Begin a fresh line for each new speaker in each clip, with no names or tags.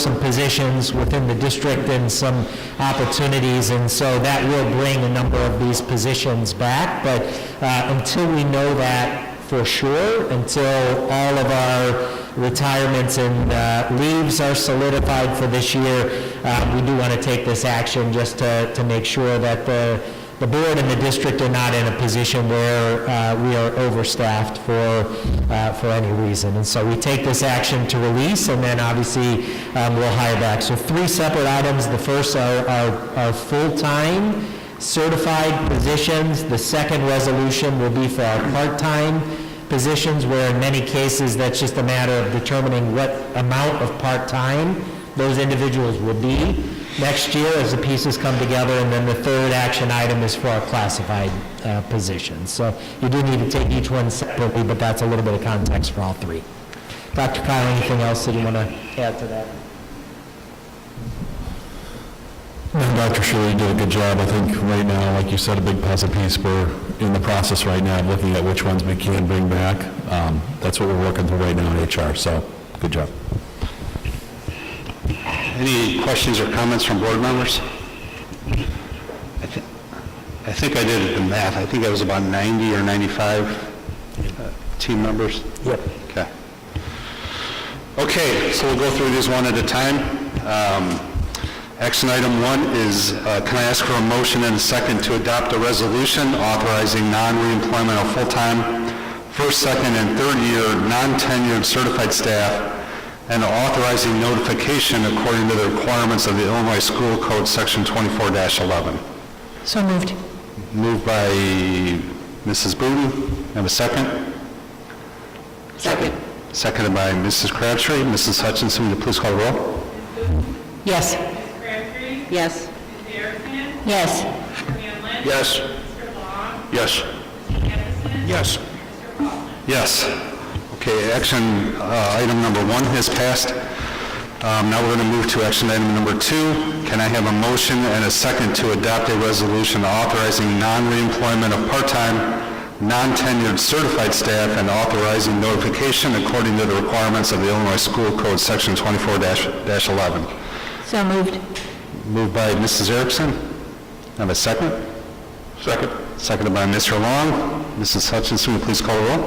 some positions within the district and some opportunities, and so that will bring a number of these positions back, but uh, until we know that for sure, until all of our retirements and uh, leaves are solidified for this year, uh, we do want to take this action just to, to make sure that the, the board and the district are not in a position where uh, we are overstaffed for, uh, for any reason. And so we take this action to release, and then obviously um, we'll hire back. So three separate items. The first are, are, are full-time certified positions. The second resolution will be for our part-time positions where in many cases, that's just a matter of determining what amount of part-time those individuals will be next year as the pieces come together. And then the third action item is for our classified uh, positions. So you do need to take each one separately, but that's a little bit of context for all three. Dr. Kyle, anything else that you want to add to that?
No, Dr. Shirley did a good job. I think right now, like you said, a big puzzle piece, we're in the process right now of looking at which ones we can bring back. Um, That's what we're working through right now in HR, so good job.
Any questions or comments from board members? I thi- I think I did the math. I think I was about 90 or 95 uh, team members.
Yep.
Okay. Okay, so we'll go through these one at a time. Um, Action item one is, uh, can I ask for a motion and a second to adopt a resolution authorizing non-reemployment of full-time, first, second, and third-year non-tenured certified staff and authorizing notification according to the requirements of the Illinois School Code, Section 24-11.
So moved.
Moved by Mrs. Booten. Have a second?
Second.
Seconded by Mrs. Crabtree. Mrs. Hutchinson, will you please call the roll?
Yes.
Ms. Crabtree,
Yes.
Ms. Erickson,
Yes.
Mr. Hanlon.
Yes.
Mr. Long,
Yes.
Mr. Anderson.
Yes.
Mr. Paulson.
Yes. Okay, action uh, item number one has passed. Um, Now we're going to move to action item number two. Can I have a motion and a second to adopt a resolution authorizing non-reemployment of part-time, non-tenured certified staff and authorizing notification according to the requirements of the Illinois School Code, Section 24-11?
So moved.
Moved by Mrs. Erickson. Have a second? Second. Seconded by Mr. Long. Mrs. Hutchinson, will you please call the roll?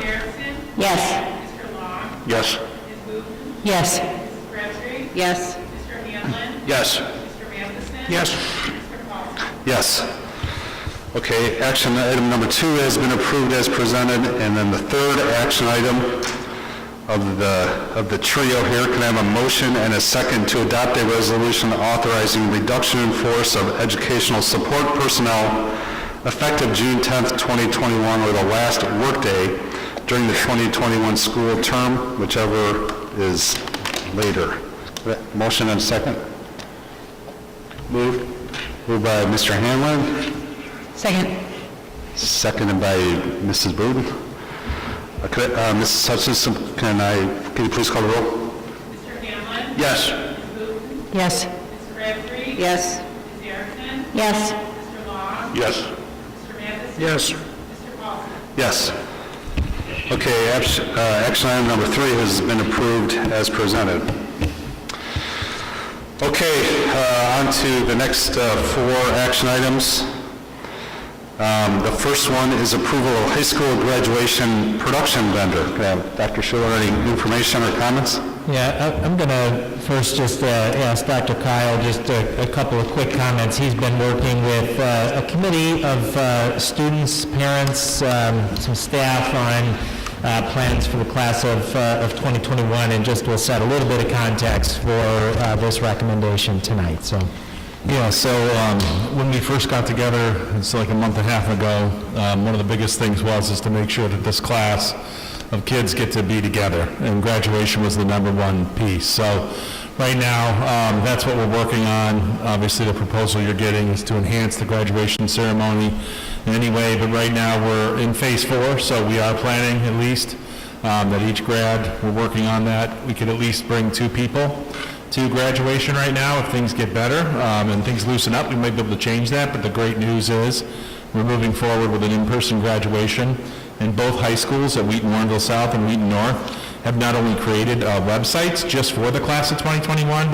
Ms. Erickson,
Yes.
Mr. Long,
Yes.
Ms. Booten,
Yes.
Ms. Crabtree,
Yes.
Mr. Hanlon,
Yes.
Mr. Anderson. Mr. Paulson.
Yes. Okay, action item number two has been approved as presented, and then the third action item of the, of the trio here, can I have a motion and a second to adopt a resolution authorizing reduction in force of educational support personnel effective June 10th, 2021, or the last workday during the 2021 school term, whichever is later. Motion and second? Moved. Moved by Mr. Hanlon,
Second.
seconded by Mrs. Bowden. Uh, could I- uh, Mrs. Hutchinson, can I, can you please call the roll?
Mr. Hanlon.
Yes.
Ms. Booten,
Yes.
Ms. Crabtree.
Yes.
Ms. Erickson,
Yes.
Mr. Long,
Yes.
Mr. Anderson.
Yes.
Mr. Paulson.
Yes. Okay, abs- uh, action item number three has been approved as presented. Okay, uh, on to the next uh, four action items. Um, The first one is approval of high school graduation production vendor. Can I have Dr. Schuler, any information or comments?
Yeah, I- I'm going to first just uh, ask Dr. Kyle just a a couple of quick comments. He's been working with uh, a committee of uh, students, parents, um, some staff on uh, plans for the class of uh, of 2021, and just will set a little bit of context for uh, this recommendation tonight, so.
Yeah, so um, when we first got together, it's like a month and a half ago, um, one of the biggest things was is to make sure that this class of kids get to be together, and graduation was the number one piece. So right now, um, that's what we're working on. Obviously, the proposal you're getting is to enhance the graduation ceremony in any way, but right now, we're in phase four, so we are planning at least um, that each grad, we're working on that. We could at least bring two people to graduation right now. If things get better um, and things loosen up, we might be able to change that. But the great news is we're moving forward with an in-person graduation in both high schools at Wheaton Warrenville South and Wheaton North. have not only created uh, websites just for the class of 2021,